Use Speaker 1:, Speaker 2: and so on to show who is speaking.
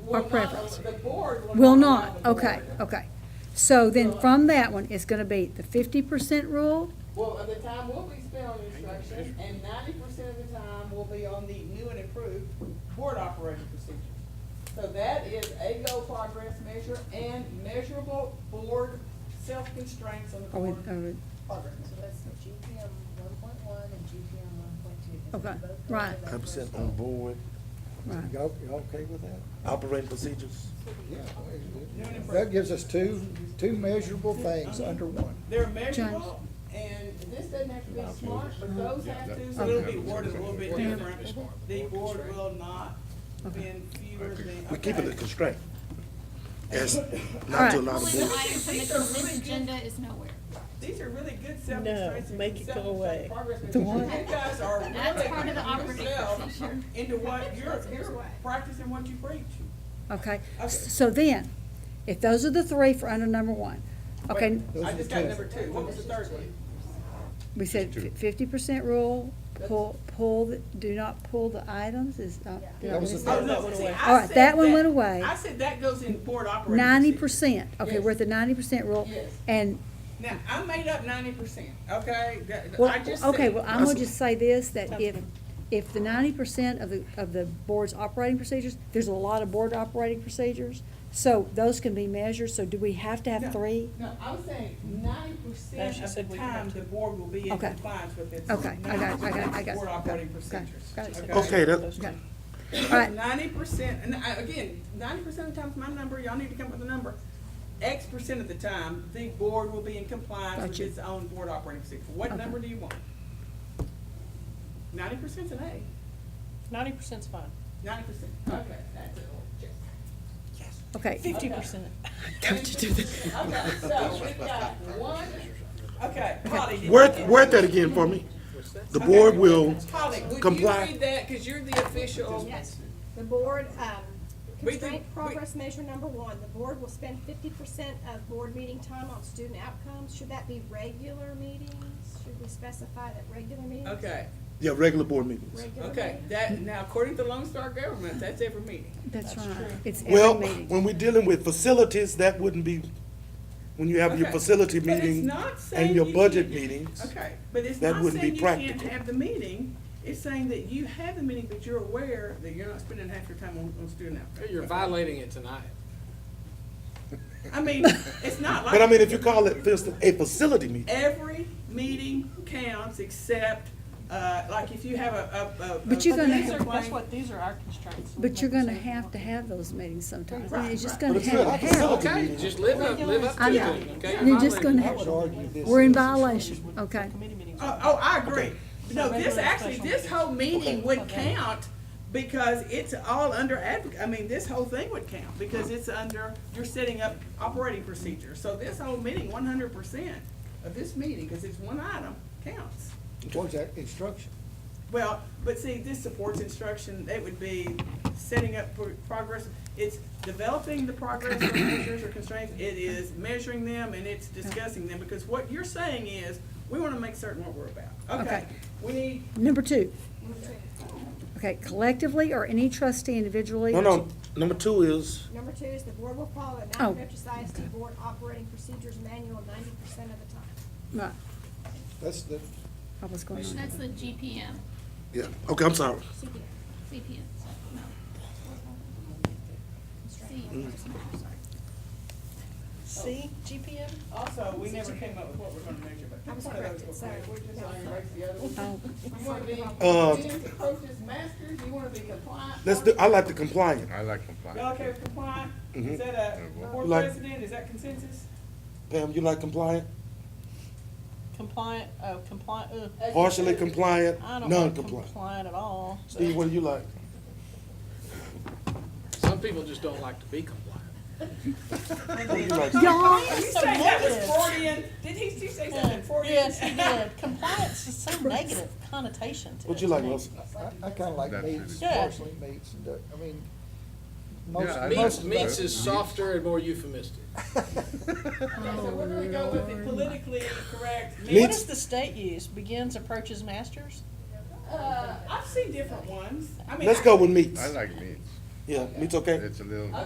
Speaker 1: Our
Speaker 2: will not-
Speaker 1: preference.
Speaker 2: The board will not.
Speaker 1: Will not,
Speaker 2: allow the
Speaker 1: okay,
Speaker 2: board.
Speaker 1: okay. So then from that one, it's gonna be the fifty percent rule,
Speaker 2: Well, uh, the time will be spent on instruction, and ninety percent of the time will be on the new and improved board operating procedures. So that is a goal progress measure and measurable board self-constraints on the
Speaker 1: are we,
Speaker 2: board
Speaker 1: are we,
Speaker 2: progress.
Speaker 3: So that's the GPM one point one and GPM one point two.
Speaker 1: Okay, right.
Speaker 4: Hundred percent on board.
Speaker 1: right,
Speaker 5: Y'all, y'all okay with that?
Speaker 4: Operating procedures.
Speaker 5: Yeah. That gives us two, two measurable things under one.
Speaker 2: They're measurable, and this doesn't have to be smart, but those have to, so it'll be worded a little bit different. The board will not be in fewer than.
Speaker 4: We keep it a
Speaker 2: okay.
Speaker 4: constraint. As not
Speaker 1: Alright.
Speaker 4: to allow the
Speaker 6: One of the
Speaker 4: board.
Speaker 6: items on the consent agenda is nowhere.
Speaker 2: These are really good self-constraints and
Speaker 3: make it go
Speaker 2: self-constraint
Speaker 3: away.
Speaker 2: progress measures. You guys are
Speaker 6: That's part of the
Speaker 2: really
Speaker 6: operating
Speaker 2: yourself
Speaker 6: procedure.
Speaker 2: into what you're, you're practicing what you preach.
Speaker 1: okay. S- So then, if those are the three for under number one, okay,
Speaker 5: Those
Speaker 2: I
Speaker 5: are
Speaker 2: just
Speaker 5: the
Speaker 2: got
Speaker 5: two.
Speaker 2: number two. What was the third one?
Speaker 1: we said fifty percent rule, pull, pull, the- do not pull the items, is uh, not.
Speaker 5: That was the
Speaker 2: Oh,
Speaker 5: third.
Speaker 2: no, see, I
Speaker 1: All right,
Speaker 2: said
Speaker 1: that one went away.
Speaker 2: I said that goes in board operating.
Speaker 1: Ninety
Speaker 2: procedure.
Speaker 1: percent, okay, we're at the ninety percent rule,
Speaker 2: Yes.
Speaker 1: and
Speaker 2: Now, I made up ninety percent, okay? That-
Speaker 1: Well,
Speaker 2: I just
Speaker 1: okay,
Speaker 2: said-
Speaker 1: well, I'm gonna just say this, that if, if the ninety percent of the, of the board's operating procedures, there's a lot of board operating procedures, so those can be measured, so do we have to have
Speaker 2: No,
Speaker 1: three?
Speaker 2: No, I'm saying ninety percent of the time, the board will be in
Speaker 1: Okay.
Speaker 2: compliance with its.
Speaker 1: Okay, I got it, I got it, I got it.
Speaker 2: Board operating
Speaker 1: Got it,
Speaker 2: procedures.
Speaker 1: got it.
Speaker 4: Okay, that,
Speaker 1: Okay, all right,
Speaker 2: Ninety percent, and I, again, ninety percent of the time is my number, y'all need to come up with a number. X percent of the time, the board will be in compliance with
Speaker 1: Gotcha.
Speaker 2: its own board operating procedure. What
Speaker 1: Okay.
Speaker 2: number do you want? Ninety percent's an A,
Speaker 7: Ninety percent's fine.
Speaker 2: ninety percent, okay, that's it.
Speaker 1: okay,
Speaker 7: Fifty percent.
Speaker 2: Okay, so we've got one, okay, Holly, did you
Speaker 4: word,
Speaker 2: get-
Speaker 4: word that again for me. The board will
Speaker 2: Holly, would you
Speaker 4: comply.
Speaker 2: read that, cause you're the official?
Speaker 8: Yes, the board, um,
Speaker 2: We
Speaker 8: constraint
Speaker 2: think- we-
Speaker 8: progress measure number one, the board will spend fifty percent of board meeting time on student outcomes. Should that be regular meetings? Should we specify that regular meetings?
Speaker 2: Okay,
Speaker 4: Yeah, regular board meetings.
Speaker 8: Regular
Speaker 2: okay,
Speaker 8: meetings?
Speaker 2: that, now according to Lone Star Government, that's every meeting.
Speaker 1: that's right, it's every
Speaker 4: Well,
Speaker 1: meeting,
Speaker 4: when we're dealing with facilities, that wouldn't be, when you have your
Speaker 2: Okay.
Speaker 4: facility
Speaker 2: But it's
Speaker 4: meeting
Speaker 2: not saying
Speaker 4: and your
Speaker 2: you
Speaker 4: budget
Speaker 2: can't-
Speaker 4: meetings.
Speaker 2: Okay, but it's
Speaker 4: That
Speaker 2: not
Speaker 4: wouldn't
Speaker 2: saying
Speaker 4: be
Speaker 2: you can't
Speaker 4: practical.
Speaker 2: have the meeting, it's saying that you have the meeting, but you're aware that you're not spending half your time on, on student outreach.
Speaker 9: You're violating it tonight.
Speaker 2: I mean, it's not like.
Speaker 4: But I mean, if you call it, for instance, a facility meeting,
Speaker 2: Every meeting counts except, uh, like if you have a, a, a.
Speaker 1: But you're
Speaker 2: a
Speaker 1: gonna-
Speaker 2: laser
Speaker 1: These
Speaker 7: That's
Speaker 2: plane-
Speaker 7: what, these are our constraints.
Speaker 1: but you're gonna have to have those meetings sometimes, I mean, it's just
Speaker 4: but
Speaker 1: gonna
Speaker 4: it's still
Speaker 1: have
Speaker 4: a
Speaker 1: to happen.
Speaker 4: facility
Speaker 9: Okay,
Speaker 4: meeting.
Speaker 9: just live up, live up
Speaker 1: I
Speaker 9: to it,
Speaker 1: know.
Speaker 9: okay?
Speaker 1: You're
Speaker 9: Violating
Speaker 1: just gonna
Speaker 9: it.
Speaker 5: I would
Speaker 1: have,
Speaker 5: argue this.
Speaker 1: we're in
Speaker 5: is-
Speaker 1: violation, okay,
Speaker 7: Committee meetings.
Speaker 2: Oh, oh, I agree. No, this
Speaker 7: Regular and
Speaker 2: actually,
Speaker 7: special
Speaker 2: this whole meeting
Speaker 4: Okay.
Speaker 2: would count because it's all under advoc, I mean, this whole thing would count because it's under, you're setting up operating procedures. So this whole meeting, one hundred percent of this meeting, because it's one item, counts.
Speaker 5: Towards that instruction.
Speaker 2: Well, but see, this supports instruction, it would be setting up pro- progress, it's developing the progress or measures or constraints, it is measuring them and it's discussing them, because what you're saying is, we wanna make certain what we're about. Okay,
Speaker 1: Okay.
Speaker 2: we need,
Speaker 1: number two. Okay, collectively or any trustee individually?
Speaker 4: No, no, number two is,
Speaker 8: Number two is the board will follow the
Speaker 1: Oh.
Speaker 8: Mountain Memphis ISD Board Operating Procedures Manual ninety percent of the time.
Speaker 1: Right,
Speaker 5: That's the,
Speaker 1: I was going on.
Speaker 6: That's the GPM,
Speaker 4: yeah, okay, I'm sorry.
Speaker 6: CPM, CPM, so, no. C, sorry.
Speaker 7: C, GPM?
Speaker 2: also, we never came up with what we're gonna measure, but.
Speaker 8: I was
Speaker 2: one of those
Speaker 8: corrected,
Speaker 2: will
Speaker 8: sorry.
Speaker 2: be- We're just gonna erase the other one.
Speaker 1: Oh,
Speaker 2: You wanna be
Speaker 4: Uh,
Speaker 2: experienced approaches masters, you wanna be compliant.
Speaker 4: Let's do, I like the compliant.
Speaker 10: I like
Speaker 2: Y'all
Speaker 10: compliance.
Speaker 2: okay with compliant? Is
Speaker 4: Mhm.
Speaker 2: that a board
Speaker 4: Like-
Speaker 2: president, is that consensus?
Speaker 4: Pam, you like compliant?
Speaker 7: Compliant, uh, compliant, uh,
Speaker 4: Partially compliant,
Speaker 7: I don't want
Speaker 4: non-compliant.
Speaker 7: compliant at all.
Speaker 4: Steve, what do you like?
Speaker 9: Some people just don't like to be compliant.
Speaker 4: What do you like?
Speaker 1: Oh,
Speaker 2: Did you say that was Freudian? Did he, did you say something Freudian?
Speaker 7: Yes, he did. Compliance is so negative connotation to it.
Speaker 4: What you like,
Speaker 7: to me.
Speaker 4: Wilson?
Speaker 5: I, I kinda like
Speaker 10: That's
Speaker 5: meats,
Speaker 7: really- Yeah.
Speaker 5: parsley meats and, duck. I mean, most,
Speaker 10: Yeah, I-
Speaker 5: most
Speaker 9: Meats,
Speaker 5: of
Speaker 9: meats
Speaker 5: that.
Speaker 9: is softer and more euphemistic.
Speaker 2: Okay, so we're gonna go with the politically correct.
Speaker 7: What
Speaker 4: Meats-
Speaker 7: does the state use? Begins, approaches, masters?
Speaker 2: Uh, I've seen different ones. I mean,
Speaker 4: Let's
Speaker 2: I-
Speaker 4: go with meats.
Speaker 10: I like meats.
Speaker 11: yeah, it's okay.
Speaker 4: It's a little.